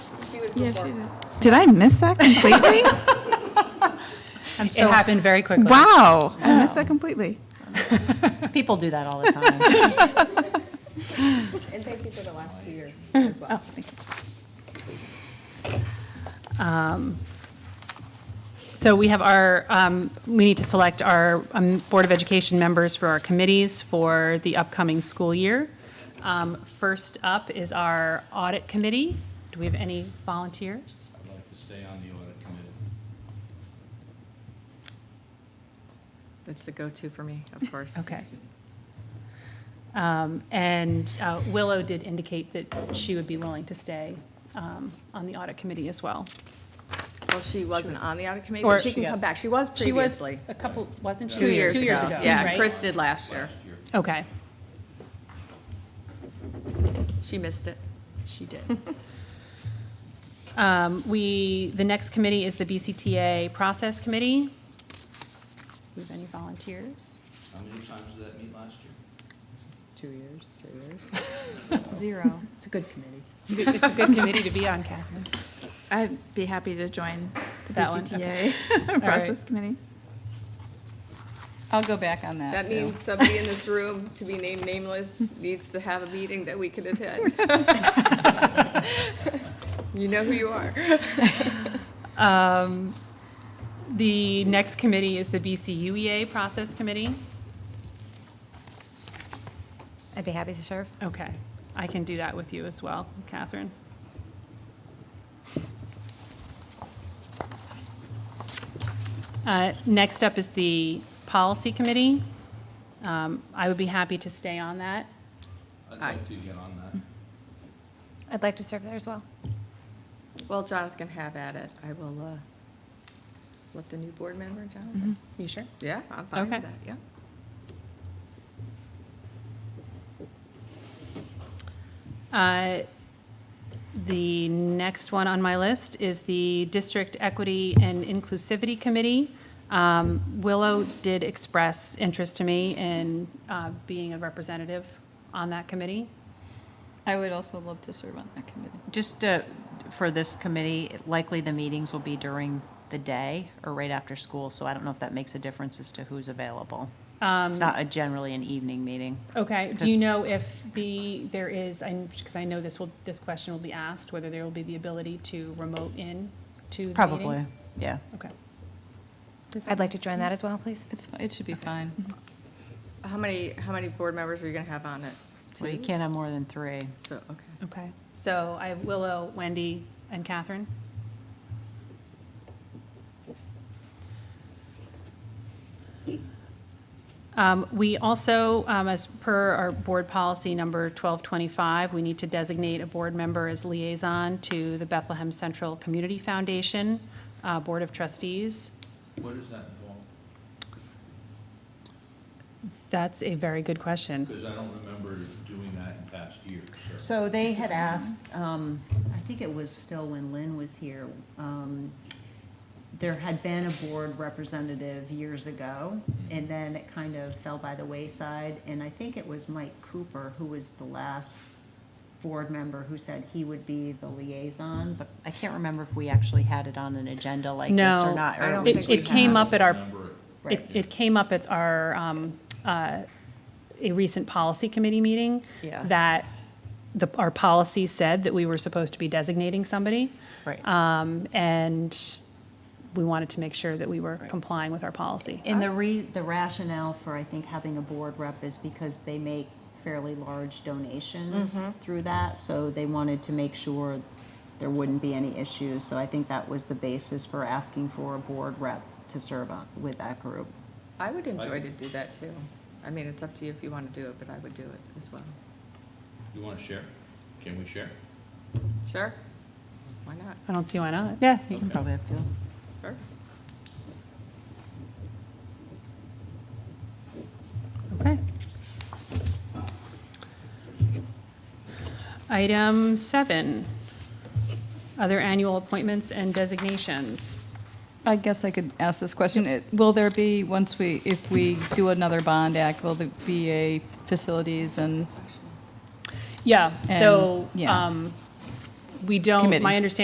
She was Yeah, before. she did. Did I miss that completely? I'm so, it happened very quickly. Wow, I missed that completely. People do that all the time. And thank you for the last two years as well. So we have our, um, we need to select our um, Board of Education members for our committees for the upcoming school year. Um, First up is our Audit Committee. Do we have any volunteers? I'd like to stay on the audit committee. That's a go-to for me, of course. Okay. Um, And uh, Willow did indicate that she would be willing to stay um, on the Audit Committee as well. Well, she wasn't on the audit committee, Or but she she can got- come back. She was She was previously. a couple, wasn't she? Two years ago. Yeah, right? Chris did last year. Okay. She missed it. She did. Um, We, the next committee is the BCTA Process Committee. Do we have any volunteers? How many times did that meet last year? Two years, three years. Zero. It's a good committee. It's a good- it's a good committee to be on, Catherine. I'd be happy to join the That one, okay. BCTA Process Committee. I'll go back on that, That too. means somebody in this room, to be named nameless, needs to have a meeting that we can attend. You know who you are. Um, The next committee is the BCUEA E Process Committee. I'd be happy to serve. Okay, I can do that with you as well, Catherine. Uh, Next up is the Policy Committee. Um, I would be happy to stay on that. I'd Aye. like to get on that. I'd like to serve there as well. Well, Jonathan can have at it. I will, uh, let the new board member, Jonathan. Mm-hmm. You sure? Yeah, I'm fine Okay. with that, yeah. Uh, The next one on my list is the District Equity and Inclusivity Committee. Um, Willow did express interest to me in uh, being a representative on that committee. I would also love to serve on that committee. Just uh, for this committee, likely the meetings will be during the day or right after school, so I don't know if that makes a difference as to who's available. It's not a generally an evening meeting. Okay, do you Because- know if the, there is, because I know this will, this question will be asked, whether there will be the ability to remote in to the meeting? Probably, yeah. Okay. I'd like to join that as well, please. It's, fi- it should be fine. Mm-hmm. How many, how many board members are you gonna have on it? Well, you Two? can't have more than three. So, okay. Okay, so I have Willow, Wendy, and Catherine. Um, We also, um, as per our board policy number 1225, we need to designate a board member as liaison to the Bethlehem Central Community Foundation uh, Board of Trustees. What does that involve? That's a very good question. Because I don't remember doing that in past years, so. So they had asked, um, I think it was still when Lynn was here, um, there had been a board representative years ago, and then it kind of fell by the wayside, and I think it was Mike Cooper, who was the last board member who said he would be the liaison, but But I can't remember if we actually had it on an agenda like this No. or not. or I don't was It think it came up at our Remember it. It, Right. it came up at our, um, uh, a recent policy committee meeting. Yeah. That the, our policy said that we were supposed to be designating somebody. Right. Um, and we wanted to make sure that we were complying with our policy. And the re, the rationale for, I think, having a board rep is because they make fairly large donations through that, so they wanted to make sure there wouldn't be any issues, so I think that was the basis for asking for a board rep to serve on, with that group. I would enjoy to do that too. I mean, it's up to you if you wanna do it, but I would do it as well. You want to share? Can we share? Sure? Why not? I don't see why not. Yeah, you can Okay. probably have two. Sure. Okay. Item seven, other annual appointments and designations. I guess I could ask this question. It- Will there be, once we, if we do another bond act, will there be a facilities and Yeah, so, And- yeah. um, we don't, Committee. my understanding